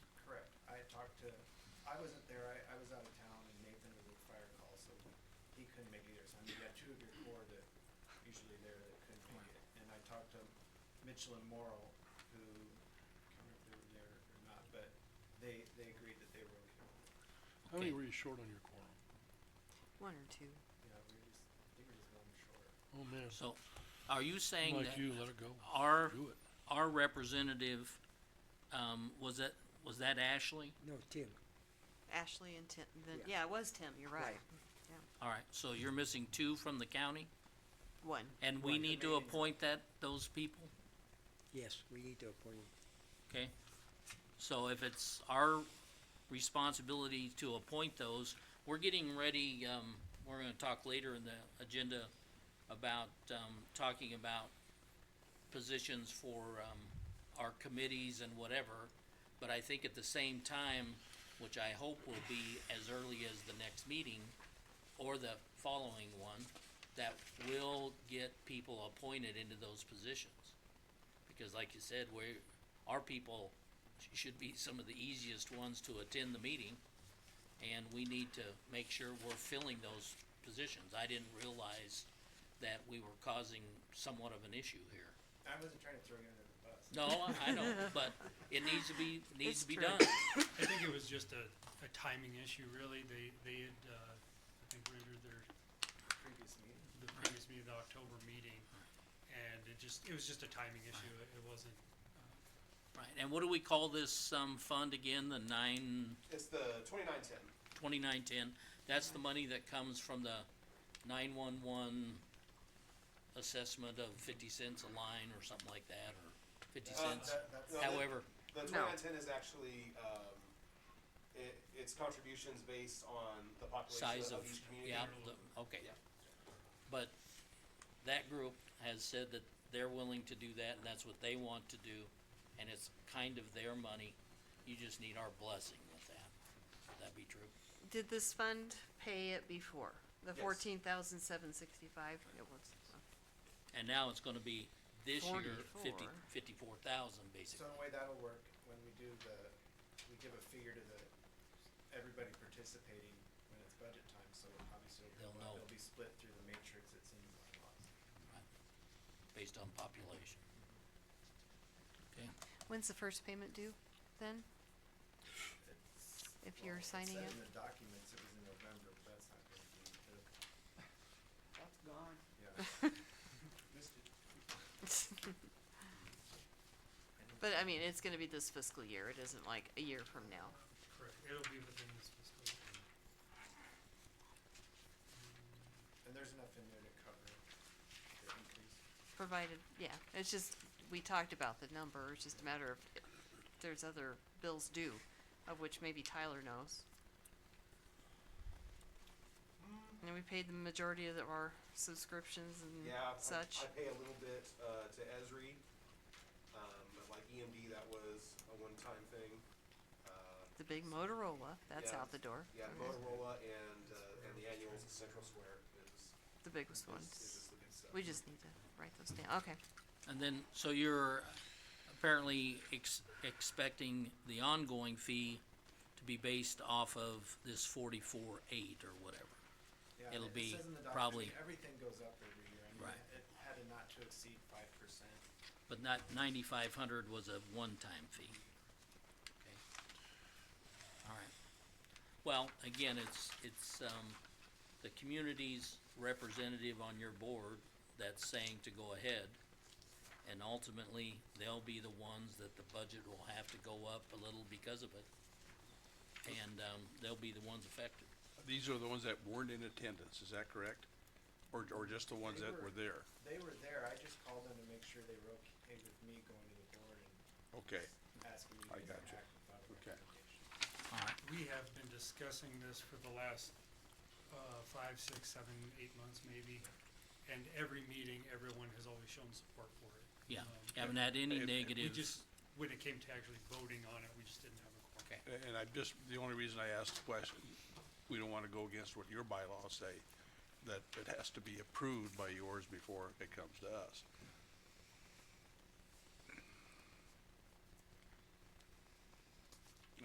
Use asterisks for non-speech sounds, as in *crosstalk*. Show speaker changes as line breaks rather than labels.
wasn't there, I, I was out of town and Nathan was with fire call, so he couldn't make it either, so I mean, you got two of your core that usually there that couldn't make it. And I talked to Mitchell and Morrow, who, I can't remember if they were there or not, but they, they agreed that they were okay. with it.
How many
Okay.
were you short on your quorum?
One or two.
Yeah, we were just, I think we were just one short.
Oh, man.
So, are you saying
I'm
that
Like you, let it go.
our,
Do it.
our representative, um, was that, was that Ashley?
No, Tim,
Ashley and Tim, then,
Yeah.
yeah, it was Tim, you're right.
Right.
All right, so you're missing two from the county,
One.
and we
Right.
need to appoint that, those people?
yes, we need to appoint him.
Okay, so if it's our responsibility to appoint those, we're getting ready, um, we're gonna talk later in the agenda about, um, talking about positions for, um, our committees and whatever, but I think at the same time, which I hope will be as early as the next meeting or the following one, that will get people appointed into those positions because like you said, we, our people sh- should be some of the easiest ones to attend the meeting. And we need to make sure we're filling those positions. I didn't realize that we were causing somewhat of an issue here.
I wasn't trying to throw you under the bus.
No, I- I
*laughs*
know, but it needs to be, needs
It's
to be
true.
done.
I think it was just a, a timing issue, really. They, they had, uh, I think rendered their,
Previous meeting.
the previous meeting, the October meeting. And it just, it was just a timing issue. It it wasn't,
Right, and what do we call this, um, fund again, the nine,
It's the twenty-nine ten.
twenty-nine ten? That's the money that comes from the nine-one-one assessment of fifty cents a line or something like that, or fifty
Uh,
cents.
Uh,
However,
The
No.
twenty-nine ten is actually, um, it, it's contributions based on the
size
population
of,
of each community.
yeah, the- okay. But that group has said that they're willing to do that, and that's what they want to do, and it's kind of their money. You just need our blessing with that. Would that be true?
Did this fund pay it before? The
Yes.
fourteen thousand seven sixty-five? It was.
And now it's gonna be this year, fifty,
44.
fifty-four thousand,
So
basically.
the way that'll work, when we do the, we give a figure to the, everybody participating when it's budget time, so obviously it'll, go up.
They'll know.
it'll be split through the matrix, it seems like a lot.
based on population. Okay,
When's the first payment due then? *laughs*
It's-
If
well,
you're
it
signing
said
it?
in the documents, it was in November, but that's not gonna be until,
That's gone.
yeah.
*laughs*
Missed it.
But I mean, it's gonna be this fiscal year. It isn't like a year from now.
correct. It'll be within this fiscal year.
And there's enough in there to cover the increase.
Provided, yeah, it's just, we talked about the number. It's just a matter of, if there's other bills due, of which maybe Tyler knows. And we paid the majority of our subscriptions and
Mm. Yeah, I-
such.
I pay a little bit, uh, to Esri, um, but like EMD, that was a one-time thing. Uh,
The big Motorola, that's
Yeah.
out the door. Mm,
yeah,
Okay.
Motorola and, uh, and the annuals at Central Square is,
The biggest
is, is
ones.
just the big stuff.
We just need to write those down. Okay.
and then, so you're apparently ex- expecting the ongoing fee to be based off of this forty-four eight or whatever.
Yeah,
It'll
it- it
be
says in the document,
probably-
Everything goes up every year, I mean,
Right.
it had a not to exceed five percent.
But not, ninety-five hundred was a one-time fee. Okay. All right. Well, again, it's, it's, um, the community's representative on your board that's saying to go ahead. And ultimately, they'll be the ones that the budget will have to go up a little because of it. And, um, they'll be the ones affected.
These are the ones that weren't in attendance, is that correct? Or, or just the ones
They
that
were.
were there?
They were there, I just called them to make sure they were okay with me going to the board and
Okay,
asking me to
I
come
gotcha.
back without a
Okay.
recommendation.
All right.
We have been discussing this for the last, uh, five, six, seven, eight months maybe. And every meeting, everyone has always shown support for it.
Yeah,
Um,
haven't had any
If- if we
We
negatives.
just, when it came to actually voting on it, we just didn't have a quorum.
Okay.
A- and I just, the only reason I asked the question, we don't wanna go against what your bylaws say, that it has to be approved by yours before it comes to us.